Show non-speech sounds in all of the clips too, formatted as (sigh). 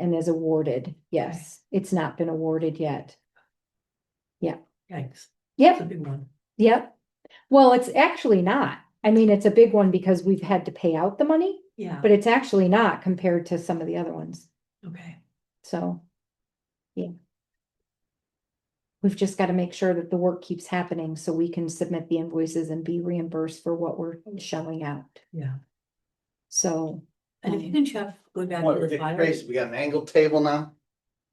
and is awarded. Yes, it's not been awarded yet. Yikes, Yep, that's a big one. Yep. Well, it's actually not. I mean, it's a big one because we've had to pay out the money, Yeah, but it's actually not compared to some of the other ones. okay. So. Yeah. We've just got to make sure that the work keeps happening so we can submit the invoices and be reimbursed for what we're shelling out. Yeah. So And if you Um, can check, go back What, to the fire. Tracy, we got an angled table now?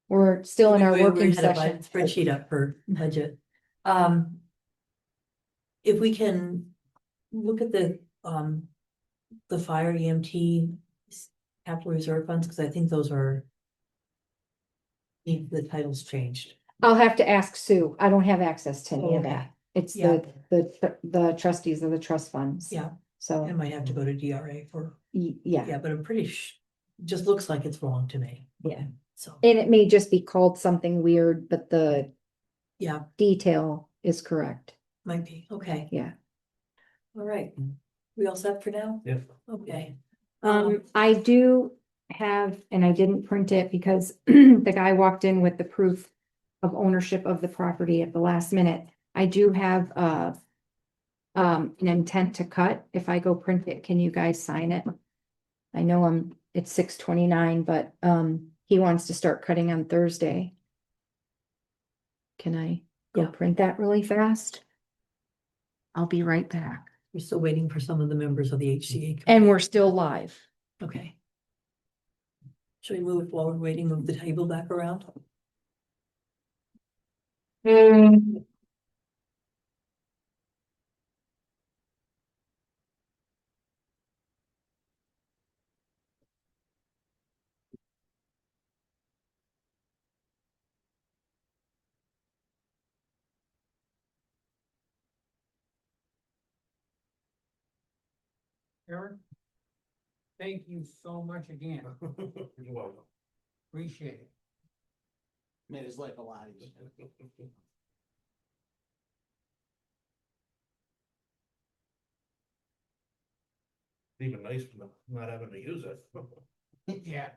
we're still in our We- we- we working had a bu- session. Spreadsheet up for budget. Um. If we can look at the, um, the fire EMT s- capital reserve funds, because I think those are. Need the titles changed. I'll have to ask Sue. I don't have access to any of Okay. that. It's Yeah, the, the, the trustees of the trust funds. Yeah. I So, might have to go to DRA for, y- yeah. yeah, but I'm pretty sh- just looks like it's wrong to me. Yeah. So, And it may just be called something weird, but the yeah, detail is correct. might be, okay. Yeah. All right, we all set for now? Yeah. Okay. Um, I do have, and I didn't print it because (clears throat) the guy walked in with the proof of ownership of the property at the last minute. I do have, uh, um, an intent to cut. If I go print it, can you guys sign it? I know I'm, it's six twenty-nine, but, um, he wants to start cutting on Thursday. Can I go Yeah. print that really fast? I'll be right back. We're still waiting for some of the members of the HCA. And we're still live. Okay. Should we move while we're waiting, move the table back around? Aaron, thank you so much again. (laughs) You're welcome. Appreciate it. Made his life a lot easier. Even nice for them not having to use it. Yeah.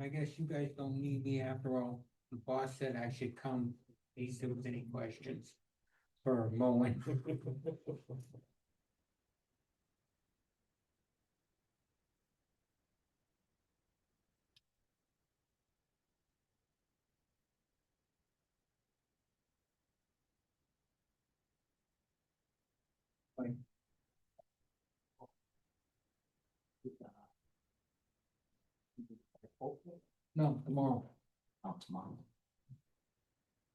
I guess you guys don't need me after all. The boss said I should come. He said with any questions for (laughs) mowing. (laughs) No, tomorrow. Out Oh, tomorrow.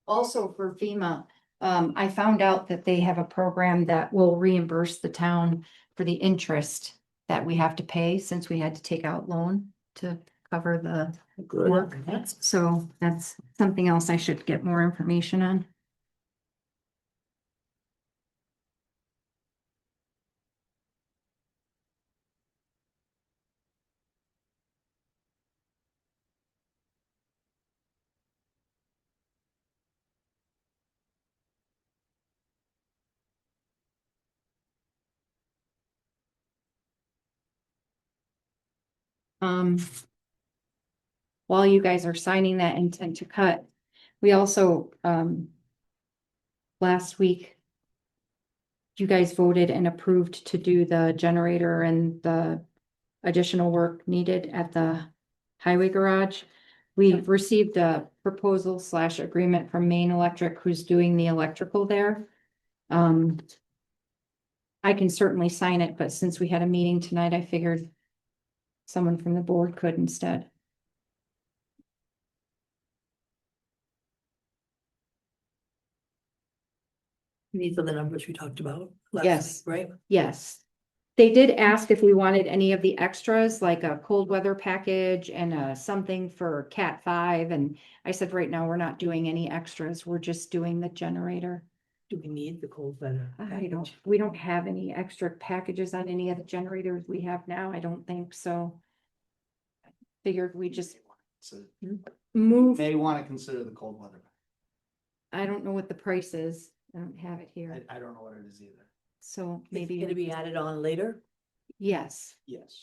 Also for FEMA, um, I found out that they have a program that will reimburse the town for the interest that we have to pay since we had to take out loan to cover the work. That's So that's something else I should get more information on. Um, while you guys are signing that intent to cut, we also, um, last week, you guys voted and approved to do the generator and the additional work needed at the highway garage. We Yep. received a proposal slash agreement from Maine Electric, who's doing the electrical there. Um, I can certainly sign it, but since we had a meeting tonight, I figured someone from the board could instead. These are the numbers we talked about. last Yes. week, Right? Yes. They did ask if we wanted any of the extras, like a cold weather package and uh something for cat five, and I said, right now, we're not doing any extras, we're just doing the generator. Do we need the cold weather? I don't, we don't have any extra packages on any of the generators we have now, I don't think so. Figured we just So you move, may wanna consider the cold weather. I don't know what the price is, I don't have it here, I, I don't know what it is either. so Maybe maybe. it'll be added on later? Yes. Yes.